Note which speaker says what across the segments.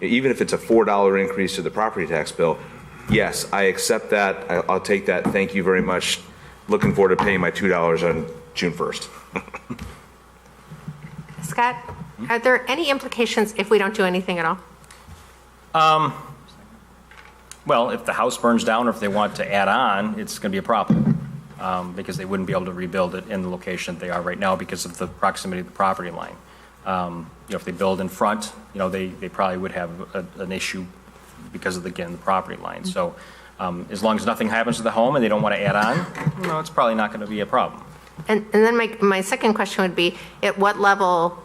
Speaker 1: even if it's a $4 increase to the property tax bill, yes, I accept that, I- I'll take that, thank you very much, looking forward to paying my $2 on June 1st.
Speaker 2: Scott, are there any implications if we don't do anything at all?
Speaker 3: Well, if the house burns down or if they want to add on, it's going to be a problem um, because they wouldn't be able to rebuild it in the location that they are right now because of the proximity of the property line. Um, You know, if they build in front, you know, they, they probably would have a- an issue because of, again, the property line. So um, as long as nothing happens to the home and they don't want to add on, no, it's probably not going to be a problem.
Speaker 2: And, and then my, my second question would be, at what level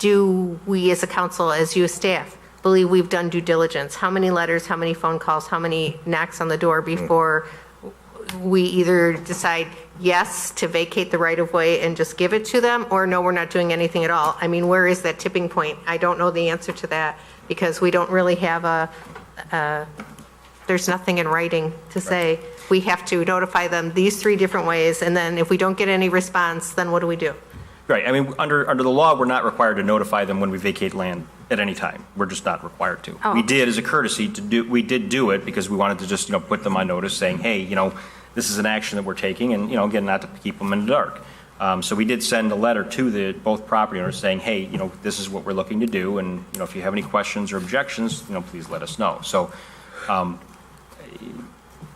Speaker 2: do we as a council, as you as staff, believe we've done due diligence? How many letters, how many phone calls, how many knocks on the door before we either decide yes to vacate the right-of-way and just give it to them, or no, we're not doing anything at all? I mean, where is that tipping point? I don't know the answer to that, because we don't really have a, there's nothing in writing to say, we have to notify them these three different ways, and then if we don't get any response, then what do we do?
Speaker 3: Right, I mean, under, under the law, we're not required to notify them when we vacate land at any time. We're just not required to.
Speaker 2: Oh.
Speaker 3: We did as a courtesy to do, we did do it because we wanted to just, you know, put them on notice saying, hey, you know, this is an action that we're taking and, you know, again, not to keep them in the dark. Um, So we did send a letter to the, both property owners saying, hey, you know, this is what we're looking to do and, you know, if you have any questions or objections, you know, please let us know. So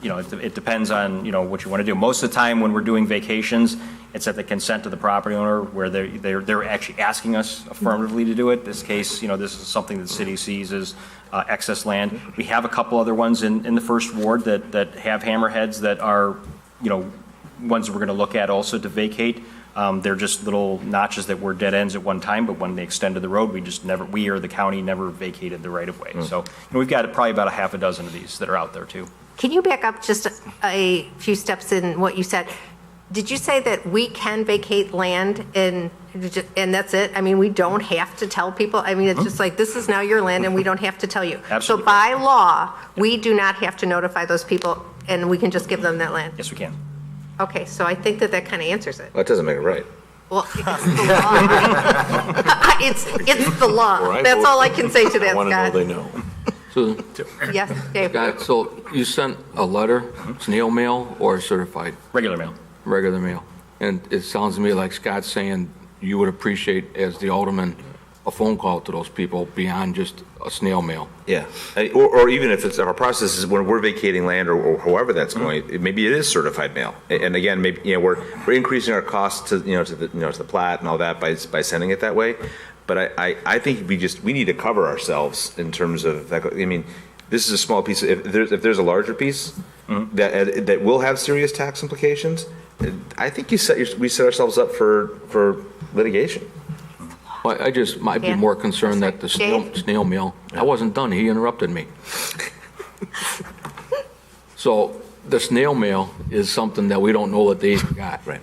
Speaker 3: you know, it it depends on, you know, what you want to do. Most of the time, when we're doing vacations, it's at the consent of the property owner, where they're, they're, they're actually asking us affirmatively to do it. This case, you know, this is something the city sees as uh, excess land. We have a couple other ones in, in the first ward that, that have hammerheads that are, you know, ones that we're going to look at also to vacate. Um, They're just little notches that were dead ends at one time, but when they extended the road, we just never, we or the county never vacated the right-of-way. So you know, we've got probably about a half a dozen of these that are out there, too.
Speaker 2: Can you back up just a few steps in what you said? Did you say that we can vacate land and, and that's it? I mean, we don't have to tell people? I mean, it's just like, this is now your land and we don't have to tell you.
Speaker 3: Absolutely.
Speaker 2: So by law, we do not have to notify those people and we can just give them that land?
Speaker 3: Yes, we can.
Speaker 2: Okay, so I think that that kind of answers it.
Speaker 1: That doesn't make it right.
Speaker 2: Well, it's the law. It's, it's the law.
Speaker 4: Alright,
Speaker 2: That's
Speaker 4: well,
Speaker 2: all I can say to
Speaker 4: I want to know
Speaker 2: that,
Speaker 4: they know.
Speaker 5: Susan,
Speaker 2: Scott. Yes, Dave.
Speaker 5: Scott, so you sent a letter, it's an email mail or certified,
Speaker 3: Regular mail.
Speaker 5: regular mail? And it sounds to me like Scott's saying you would appreciate, as the alderman, a phone call to those people beyond just a snail mail.
Speaker 1: Yeah, I- or, or even if it's, our process is when we're vacating land or- or however that's going, it- maybe it is certified mail. A- And again, maybe, you know, we're, we're increasing our costs to, you know, to the, you know, to the plat and all that by, by sending it that way. But I, I, I think we just, we need to cover ourselves in terms of, that go- I mean, this is a small piece, if there's, if there's a larger piece that, uh, that will have serious tax implications, uh, I think you set, your- we set ourselves up for, for litigation.
Speaker 5: But I just might be
Speaker 2: Yeah.
Speaker 5: more concerned that the snail,
Speaker 2: Dave?
Speaker 5: snail mail, I wasn't done, he interrupted me. So the snail mail is something that we don't know that they even got.
Speaker 1: Right.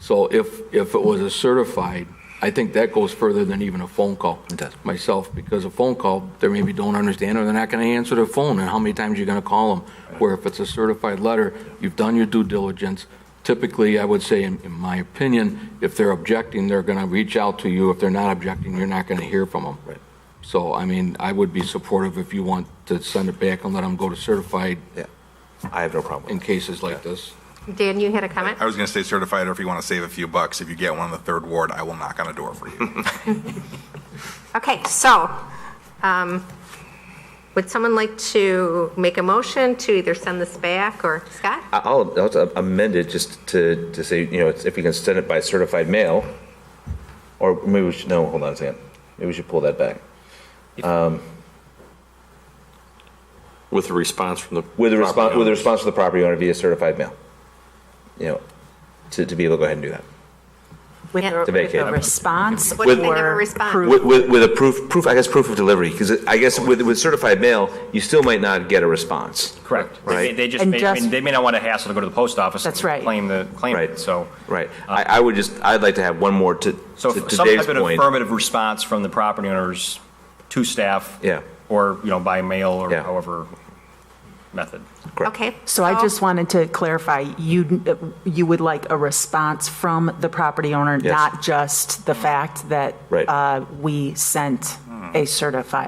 Speaker 5: So if, if it was a certified, I think that goes further than even a phone call.
Speaker 1: It does.
Speaker 5: Myself, because a phone call, they maybe don't understand, or they're not going to answer their phone, and how many times you're going to call them? Where if it's a certified letter, you've done your due diligence. Typically, I would say, in in my opinion, if they're objecting, they're going to reach out to you. If they're not objecting, you're not going to hear from them.
Speaker 1: Right.
Speaker 5: So, I mean, I would be supportive if you want to send it back and let them go to certified
Speaker 1: Yeah, I have no problem
Speaker 5: in
Speaker 1: with
Speaker 5: cases like this.
Speaker 2: Dan, you had a comment?
Speaker 6: I was going to say certified, or if you want to save a few bucks, if you get one in the third ward, I will knock on a door for you.
Speaker 2: Okay, so, um, would someone like to make a motion to either send this back or, Scott?
Speaker 1: I- I'll, I'll amend it just to, to say, you know, it's- if we can send it by certified mail, or maybe we should, no, hold on a second. Maybe we should pull that back.
Speaker 4: With the response from the.
Speaker 1: With a response,
Speaker 4: property
Speaker 1: with a
Speaker 4: owners.
Speaker 1: response to the property owner via certified mail. You know, to, to be able to go ahead and do that.
Speaker 7: With
Speaker 2: Yeah.
Speaker 7: a
Speaker 1: To
Speaker 7: with
Speaker 1: vacate.
Speaker 7: a response
Speaker 2: What if they never
Speaker 7: or
Speaker 2: respond?
Speaker 7: proof?
Speaker 1: With, with, with a proof, proof, I guess proof of delivery, because I guess with, with certified mail, you still might not get a response.
Speaker 3: Correct. They-
Speaker 1: Right.
Speaker 3: They just,
Speaker 7: And
Speaker 3: may- I mean,
Speaker 7: just-
Speaker 3: they may not want to hassle to go to the post office.
Speaker 7: That's
Speaker 3: and
Speaker 7: right.
Speaker 3: Claim the, claim
Speaker 1: Right.
Speaker 3: it, so.
Speaker 1: Right. I, I would just, I'd like to have one more to,
Speaker 3: So
Speaker 1: to
Speaker 3: if
Speaker 1: to
Speaker 3: some
Speaker 1: Dave's
Speaker 3: type of
Speaker 1: point.
Speaker 3: affirmative response from the property owners to staff.
Speaker 1: Yeah.
Speaker 3: Or, you know, by mail or
Speaker 1: Yeah.
Speaker 3: however method.
Speaker 1: Correct.
Speaker 2: Okay.
Speaker 7: So I just
Speaker 2: Oh.
Speaker 7: wanted to clarify, you, you would like a response from the property owner,
Speaker 1: Yes.
Speaker 7: not just the fact that
Speaker 1: Right.
Speaker 7: uh, we sent a certified